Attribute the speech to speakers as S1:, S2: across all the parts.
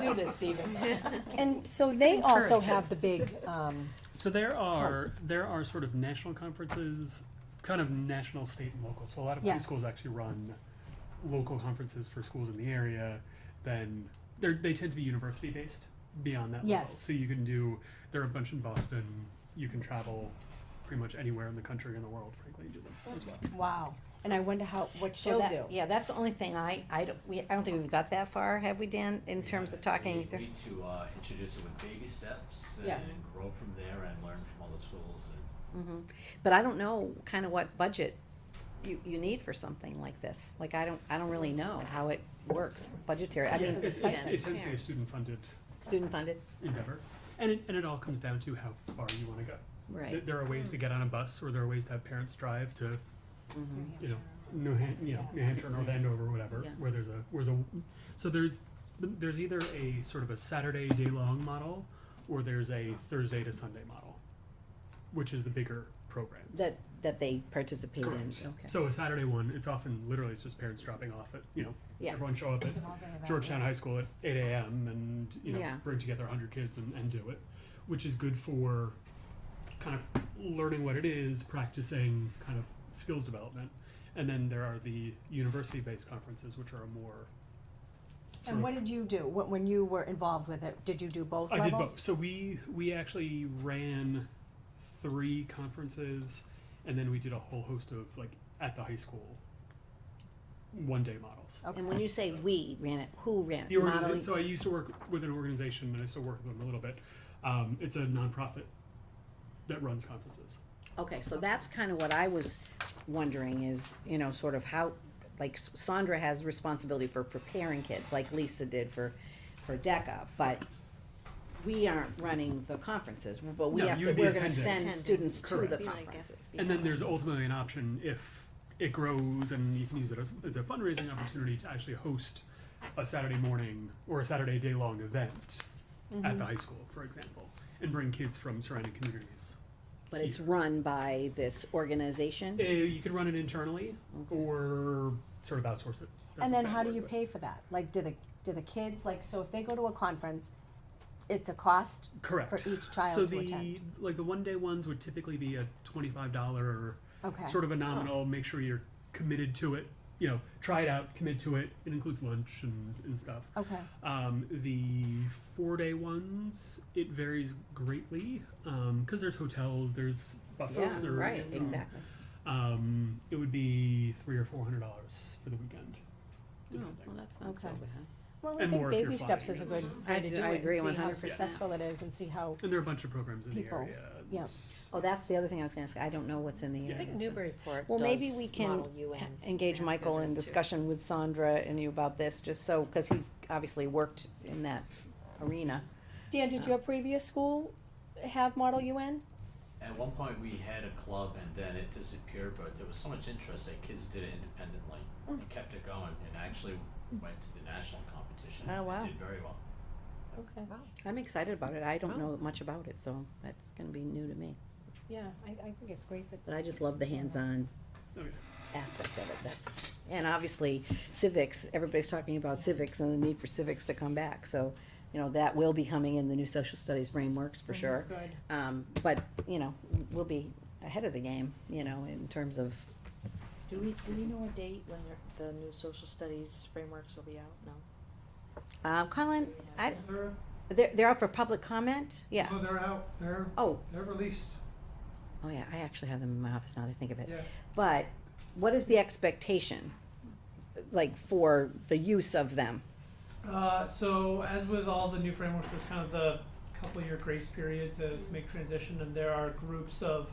S1: do this, Stephen.
S2: And so they also have the big, um,
S3: So there
S4: Oh.
S3: are there are sort of national conferences, kind of national, state, and local. So a lot of
S2: Yeah.
S3: high schools actually run local conferences for schools in the area. Then they they tend to be university based beyond that level.
S2: Yes.
S3: So you can do there are a bunch in Boston. You can travel pretty much anywhere in the country and the world, frankly, to do them as well.
S2: wow, and I wonder how, what
S4: So
S2: she'll
S4: that-
S2: do.
S4: Yeah, that's the only thing I, I don't, we, I don't think we've got that far, have we, Dan, in terms of talking?
S5: We need to uh, introduce it with baby steps
S2: Yeah.
S5: and grow from there and learn from other schools and
S4: Mhm. But I don't know kind of what budget you, you need for something like this. Like, I don't, I don't really know how it works budgetary. I mean,
S3: it's,
S4: like
S3: it's, it tends to be a student funded
S4: student funded,
S3: endeavor, and it and it all comes down to how far you want to go. Th-
S4: right? Hmm.
S3: There are ways to get on a bus, or there are ways to have parents drive to, you know, New Han- you know, New Hampshire, North Andover, whatever,
S4: Yeah.
S3: where there's a, where's a, so there's, th- there's either a sort of a Saturday day-long model, or there's a Thursday to Sunday model, which is the bigger program.
S4: That, that they participate in,
S3: Correct.
S4: okay.
S3: So a Saturday one, it's often literally it's just parents dropping off at, you know,
S4: Yeah.
S3: everyone show up at Georgetown High School at eight AM and, you know,
S4: Yeah.
S3: bring together hundred kids and, and do it, which is good for kind of learning what it is, practicing kind of skills development. And then there are the university-based conferences, which are a more sort
S2: And
S3: of-
S2: what did you do, Wh- when you were involved with it, did you do both
S3: I
S2: levels?
S3: did both. So we we actually ran three conferences, and then we did a whole host of like at the high school one day models.
S4: And when you say we ran it, who ran
S3: The
S4: it?
S3: organiza-
S4: Modeling?
S3: so I used to work with an organization, and I still work with them a little bit. Um, it's a nonprofit that runs conferences.
S4: Okay, so that's kind of what I was wondering is, you know, sort of how, like Sandra has responsibility for preparing kids, like Lisa did for, for DECA, but we aren't running the conferences, but we
S3: No,
S4: have
S3: you
S4: to,
S3: would be
S4: we're gonna
S3: attending.
S4: send students to the
S3: Correct.
S4: conferences.
S3: And then there's ultimately an option if it grows and you can use it as, as a fundraising opportunity to actually host a Saturday morning or a Saturday day long event
S2: Mm-hmm.
S3: at the high school, for example, and bring kids from surrounding communities.
S4: But it's run by this organization?
S3: Eh, you could run it internally or sort of outsource it.
S2: And
S3: That's a
S2: then
S3: bad
S2: how do
S3: word,
S2: you
S3: but-
S2: pay for that? Like, do the, do the kids, like, so if they go to a conference, it's a cost?
S3: Correct.
S2: For each child
S3: so
S2: to
S3: the
S2: attend?
S3: like the one day ones would typically be a twenty five dollar
S2: Okay. Oh.
S3: sort of a nominal. Make sure you're committed to it. You know, try it out, commit to it. It includes lunch and, and stuff.
S2: Okay,
S3: Um, the four day ones, it varies greatly because there's hotels, there's
S4: Yeah,
S3: buses. or,
S4: right, exactly.
S3: Um, it would be three or four hundred dollars for the weekend.
S2: Oh,
S3: depending.
S4: that's
S2: not so bad. well, I
S3: And
S2: think
S3: more if you're
S2: baby steps
S3: flying.
S2: is a good
S4: I
S2: way to
S4: d-
S2: do
S4: I
S2: it,
S4: agree
S2: and see how
S4: 100%.
S2: successful it is, and see how,
S3: and there are a bunch of programs in
S2: People,
S3: the area. and
S2: yeah.
S4: Oh, that's the other thing I was gonna ask, I don't know what's in the.
S3: Yeah. I
S4: area,
S3: think
S4: so-
S6: Newburyport
S4: Well, maybe we can engage Michael in discussion with Sandra and you about this, just so, because he's obviously worked in that arena.
S2: Dan, did your previous school have Model UN?
S5: At one point, we had a club, and then it disappeared. But there was so much interest that kids did it independently
S4: Hmm.
S5: and kept it going, and actually went to the national competition.
S4: Oh,
S5: and
S4: wow.
S5: Did very well.
S2: Okay,
S4: I'm excited about it. I don't know much about it, so that's gonna be new to me.
S2: yeah, I, I think it's great that
S4: But I just love the hands-on
S3: Okay.
S4: aspect of it, that's, and obviously civics, everybody's talking about civics and the need for civics to come back, so, you know, that will be coming in the new social studies frameworks for sure.
S2: Good.
S4: Um, but, you know, we'll be ahead of the game, you know, in terms of
S6: Do we, do we know a date when the- the new social studies frameworks will be out? No.
S4: Uh, Colin, I,
S7: They're,
S4: they're, they're out for public comment? Yeah.
S7: no, they're out, they're,
S4: Oh,
S7: they're released,
S4: oh yeah, I actually have them in my office now that I think of it.
S7: yeah.
S4: But what is the expectation, like, for the use of them?
S7: Uh, so as with all the new frameworks, there's kind of the couple-year grace period to, to make transition, and there are groups of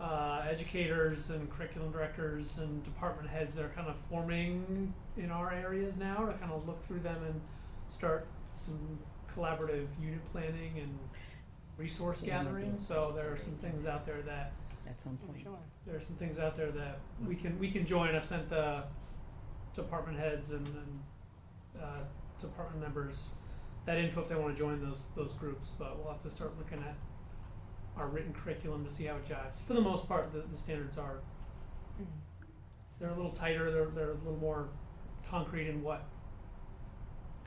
S7: uh, educators and curriculum directors and department heads that are kind of forming in our areas now to kind of look through them and start some collaborative unit planning and resource
S4: Yeah, maybe
S7: gathering.
S4: it's
S7: So there are some things out there that
S4: At some point.
S7: there are some things out there that we can we can join. I've sent the department heads and, and uh, department members that info if they want to join those those groups. But we'll have to start looking at our written curriculum to see how it jives. For the most part, the, the standards
S2: Mm-hmm.
S7: are they're a little tighter. They're they're a little more concrete in what